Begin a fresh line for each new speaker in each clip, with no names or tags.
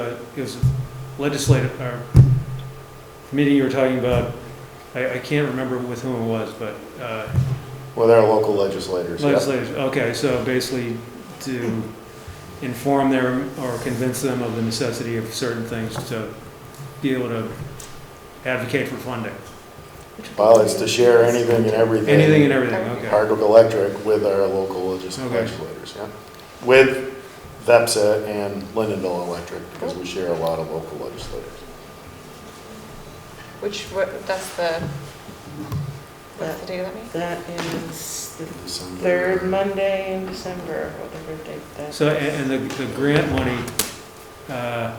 it was uh, legislative, or committee you were talking about, I, I can't remember with whom it was, but, uh,
Well, they're local legislators, yeah.
Legislators, okay, so basically to inform them or convince them of the necessity of certain things to be able to advocate for funding.
Well, it's to share anything and everything.
Anything and everything, okay.
Hardwick Electric with our local legis-
Okay.
legislators, yeah. With VEPSA and Lindenville Electric, because we share a lot of local legislators.
Which, what, that's the, what's the date of that meeting?
That is the
December-
third Monday in December, whatever date that.
So, a- and, and the, the grant money, uh,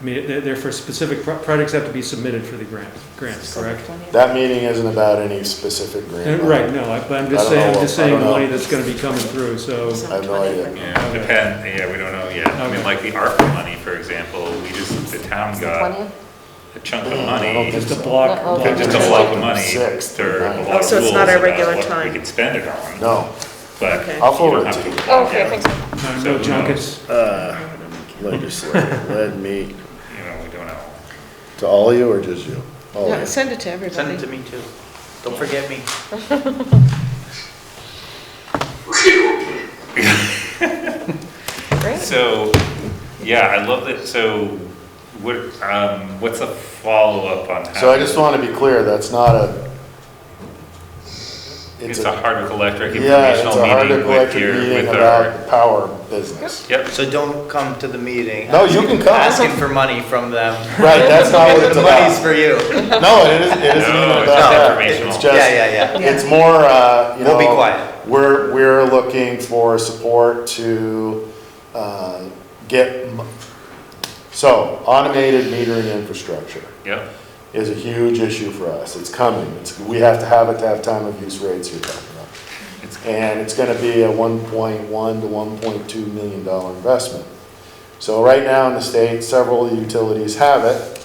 I mean, they're, they're for specific, pro- projects have to be submitted for the grant, grants, correct?
That meeting isn't about any specific
Uh,
grant.
Right, no, I- but I'm
I
just
don't
saying,
know,
I'm just
I don't
saying the
know.
money that's gonna be coming through, so,
I have no idea.
Yeah,
Okay.
depend, yeah, we don't know yet. I
Okay.
mean, like the ARPA money, for example, we just, the town got a chunk
Oh,
of money,
just a
so.
block.
No,
block-
just
It's
a
like
block
the
of money
sixth,
for a
ninth.
lot of
Oh, so it's
rules
not our
about
regular
what we
time.
could spend it on.
No,
But
Okay.
you
I'll forward
don't
it
have
to
to.
Oh, Okay, thanks.
No, No junkets,
Uh, legislator, let me,
You know, we don't know.
to all of you or just you? All
Oh.
No,
of you.
Send it to
Send it
everybody.
to me too. Don't forget me.
Great.
So, yeah, I love that, so what, um, what's the follow-up on?
so I
how-
just want to be clear, that's not a.
It's a Hardwick Electric
Yeah, it's a
informational
Hardwick
meeting with
Electric
your,
meeting
with our.
about the power business.
Yep,
So don't come to the meeting.
No, you can come.
Asking for money from them.
Right, that's not what it's
The money's
about.
for you.
No, it isn't, it isn't
No,
even
it's
about
just
that.
informational.
It's
Yeah,
just-
yeah, yeah.
It's more, uh, you know.
We'll be quiet.
We're, we're looking for support to, uh, get, m- so automated metering infrastructure
yep,
is a huge issue for us. It's coming. It's, we have to have it to have time of use rates you're talking about.
It's-
And it's gonna be a one point one to one point two million dollar investment. So right now in the state, several of the utilities have it.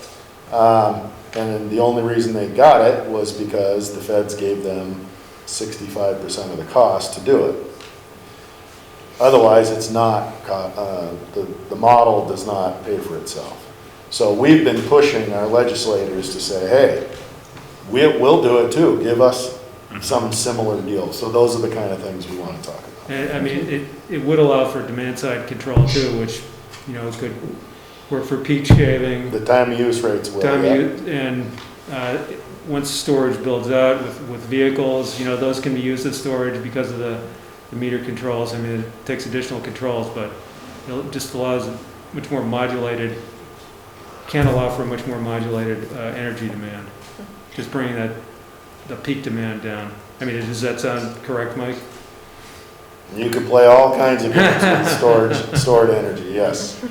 Um, and then the only reason they got it was because the feds gave them sixty-five percent of the cost to do it. Otherwise, it's not, co- uh, the, the model does not pay for itself. So we've been pushing our legislators to say, hey, we, we'll do it too, give us
Mm-hmm.
some similar deal. So those are the kind of things we want to talk about.
And, I mean, it, it would allow for demand side control too, which, you know, could work for peak shaving,
The time of use rates will.
time
yeah.
u- and, uh, once storage builds out with, with vehicles, you know, those can be used as storage because of the, the meter controls. I mean, it takes additional controls, but it just allows much more modulated, can allow for much more modulated, uh, energy demand. Just bringing that, the peak demand down. I mean, does that sound correct, Mike?
You can play all kinds of games with storage, stored energy, yes.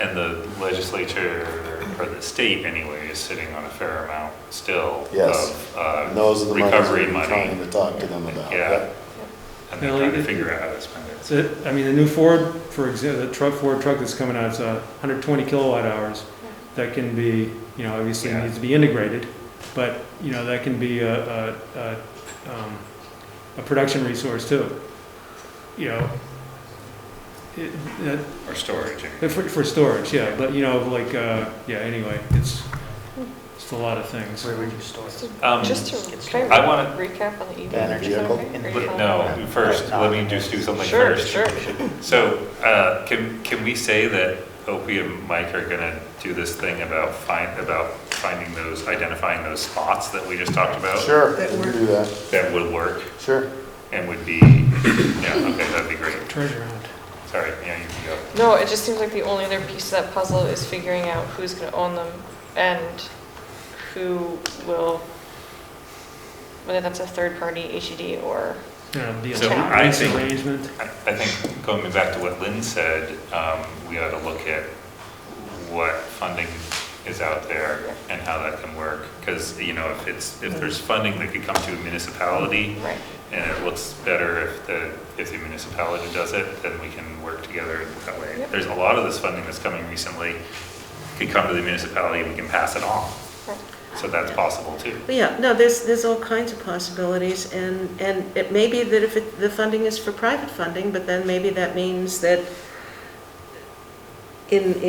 and the legislature, or the state anyway, is sitting on a fair amount still
Yes.
of, uh,
And those are the monies
recovery
we're
money.
trying to talk to them about.
Yeah. And they're
Well,
trying to
it-
figure out how to spend it.
So, I mean, the new Ford, for example, the truck, Ford truck that's coming out, it's a hundred twenty kilowatt hours. That can be, you know, obviously it
Yeah.
needs to be integrated, but, you know, that can be a, a, a, um, a production resource too. You know, it, that,
Or storage, I mean.
for, for storage, yeah, but, you know, like, uh, yeah, anyway, it's, it's a lot of things.
Where would you store it?
So
Um,
Just to, can I
I wanna-
recap on the EV?
Banner
Is that
vehicle?
okay? Or you
But
wanna-
no, first, let me just do something
Sure,
first.
sure.
So, uh, can, can we say that Opie and Mike are gonna do this thing about find, about finding those, identifying those spots that we just talked about?
Sure, we can do that,
That would work
sure.
and would be, yeah, okay, that'd be great.
Treasure hunt.
Sorry, yeah, you can go.
No, it just seems like the only other piece of that puzzle is figuring out who's gonna own them and who will, whether that's a third party, HED, or,
You know, the
So I
lease
think-
arrangement.
I I think, going back to what Lynn said, um, we ought to look at what funding is out there and how that can work. Because, you know, if it's, if there's funding that could come to a municipality,
right.
and it looks better if the, if the municipality does it, then we can work together that way.
Yep.
There's a lot of this funding that's coming recently, could come to the municipality, we can pass it on.
Right.
So that's possible too.
But Yeah, no, there's, there's all kinds of possibilities, and, and it may be that if it- the funding is for private funding, but then maybe that means that in,